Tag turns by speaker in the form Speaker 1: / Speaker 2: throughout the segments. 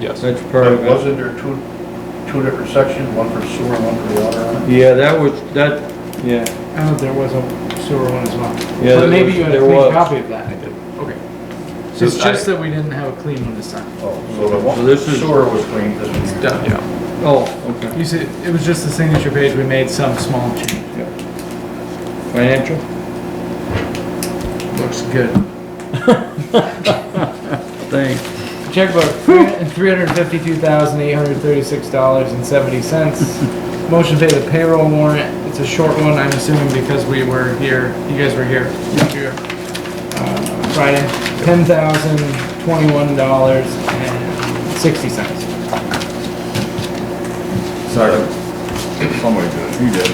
Speaker 1: Yes.
Speaker 2: That's part of it.
Speaker 3: Wasn't there two, two different sections, one for sewer, and one for water on it?
Speaker 2: Yeah, that was, that, yeah,
Speaker 4: Oh, there was a sewer one as well.
Speaker 2: Yeah,
Speaker 4: But
Speaker 2: there
Speaker 4: maybe
Speaker 2: was-
Speaker 4: you had a
Speaker 2: there
Speaker 4: clean
Speaker 2: was.
Speaker 4: copy of that. I did. Okay. So It's
Speaker 1: So
Speaker 4: just
Speaker 1: I-
Speaker 4: that we didn't have a clean one this time.
Speaker 3: Oh, so the
Speaker 2: So
Speaker 3: one,
Speaker 2: this is-
Speaker 3: sewer was clean, this
Speaker 4: It's
Speaker 3: one.
Speaker 4: done.
Speaker 1: Yeah,
Speaker 2: oh, okay.
Speaker 4: You see, it was just the signature page, we made some small change.
Speaker 2: yeah. Financial?
Speaker 4: Looks good.
Speaker 2: Thanks.
Speaker 4: Checkbook, three hundred fifty-two thousand, eight hundred thirty-six dollars and seventy cents. Motion to pay the payroll warrant, it's a short one, I'm assuming because we were here, you guys were here. Here. Uh, Friday, ten thousand, twenty-one dollars and sixty cents.
Speaker 3: Second. Somebody did it. You did.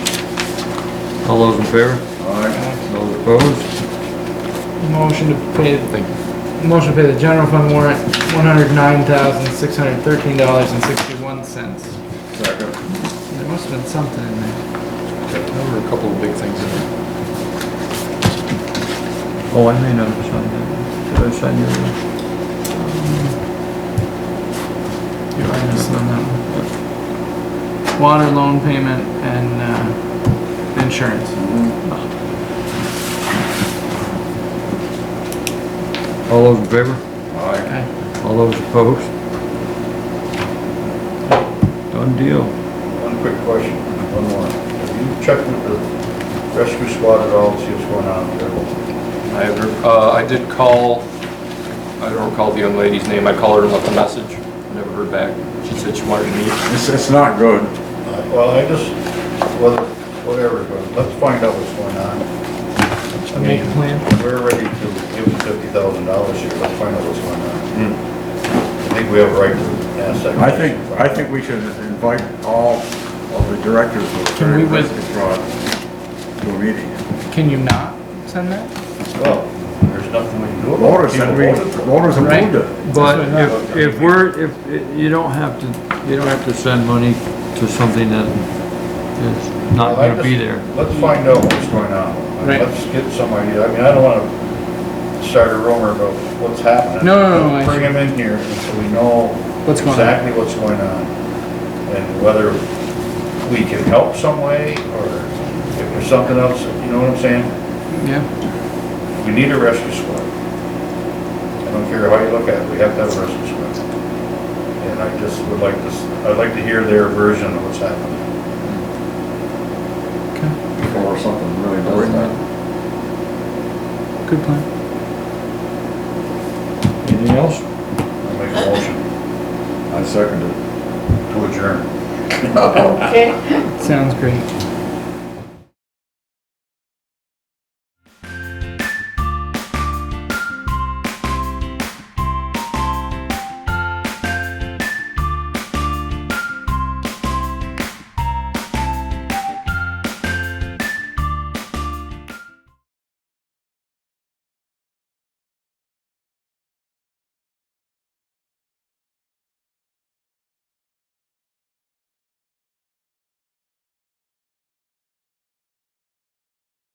Speaker 2: All those in favor?
Speaker 3: All right.
Speaker 2: Those opposed?
Speaker 4: Motion to pay,
Speaker 1: thank you.
Speaker 4: motion to pay the general fund warrant, one hundred nine thousand, six hundred thirteen dollars and sixty-one cents.
Speaker 3: Second.
Speaker 4: There must've been something in there.
Speaker 1: There were a couple of big things in there.
Speaker 2: Oh, I may not have signed that. Did I sign your one?
Speaker 4: You're right, I missed Um, on that one. Water loan payment and, uh, insurance.
Speaker 2: All those in favor?
Speaker 3: All right.
Speaker 4: Okay.
Speaker 2: All those opposed? Done deal.
Speaker 3: One quick question, one more. Have you checked with the rescue squad at all, to see what's going on up there?
Speaker 1: I have, re- uh, I did call, I don't recall the young lady's name, I called her and left a message, never heard back. She said she wanted to meet.
Speaker 5: It's, it's not good.
Speaker 3: Well, I just, whether, whatever's going, let's find out what's going on. I
Speaker 4: Make a
Speaker 3: mean,
Speaker 4: plan.
Speaker 3: We're ready to give them fifty thousand dollars here, let's find out what's going on. I think we have a right to ask that.
Speaker 5: Hmm. I think, I think we should invite all of the directors of the
Speaker 4: Can we
Speaker 5: Fair
Speaker 4: with-
Speaker 5: Risk Squad to a meeting.
Speaker 4: Can you not send that?
Speaker 3: Well, there's nothing we can do about it.
Speaker 5: Voters,
Speaker 3: People
Speaker 5: and we,
Speaker 3: voted for it.
Speaker 5: voters
Speaker 4: Right.
Speaker 5: approved it.
Speaker 2: But if, if we're, if, you don't have to, you don't have to send money to something that is not
Speaker 3: Well, I
Speaker 2: gonna be
Speaker 3: just-
Speaker 2: there.
Speaker 3: Let's find out what's going on.
Speaker 4: Right.
Speaker 3: Let's get some idea. I mean, I don't wanna start a rumor about what's happening.
Speaker 4: No, no, no, I-
Speaker 3: Bring him in here so we know.
Speaker 4: What's going on.
Speaker 3: Exactly what's going on and whether we can help some way or if there's something else, you know what I'm saying?
Speaker 4: Yeah.
Speaker 3: We need a rescue squad. I don't care how you look at it, we have to have a rescue squad. And I just would like to, s- I'd like to hear their version of what's happening.
Speaker 4: Okay.
Speaker 5: Or something really important.
Speaker 4: Good plan.
Speaker 2: Anything else?
Speaker 3: I'll make a motion
Speaker 5: I second it.
Speaker 3: to adjourn.
Speaker 6: Okay.
Speaker 4: Sounds great.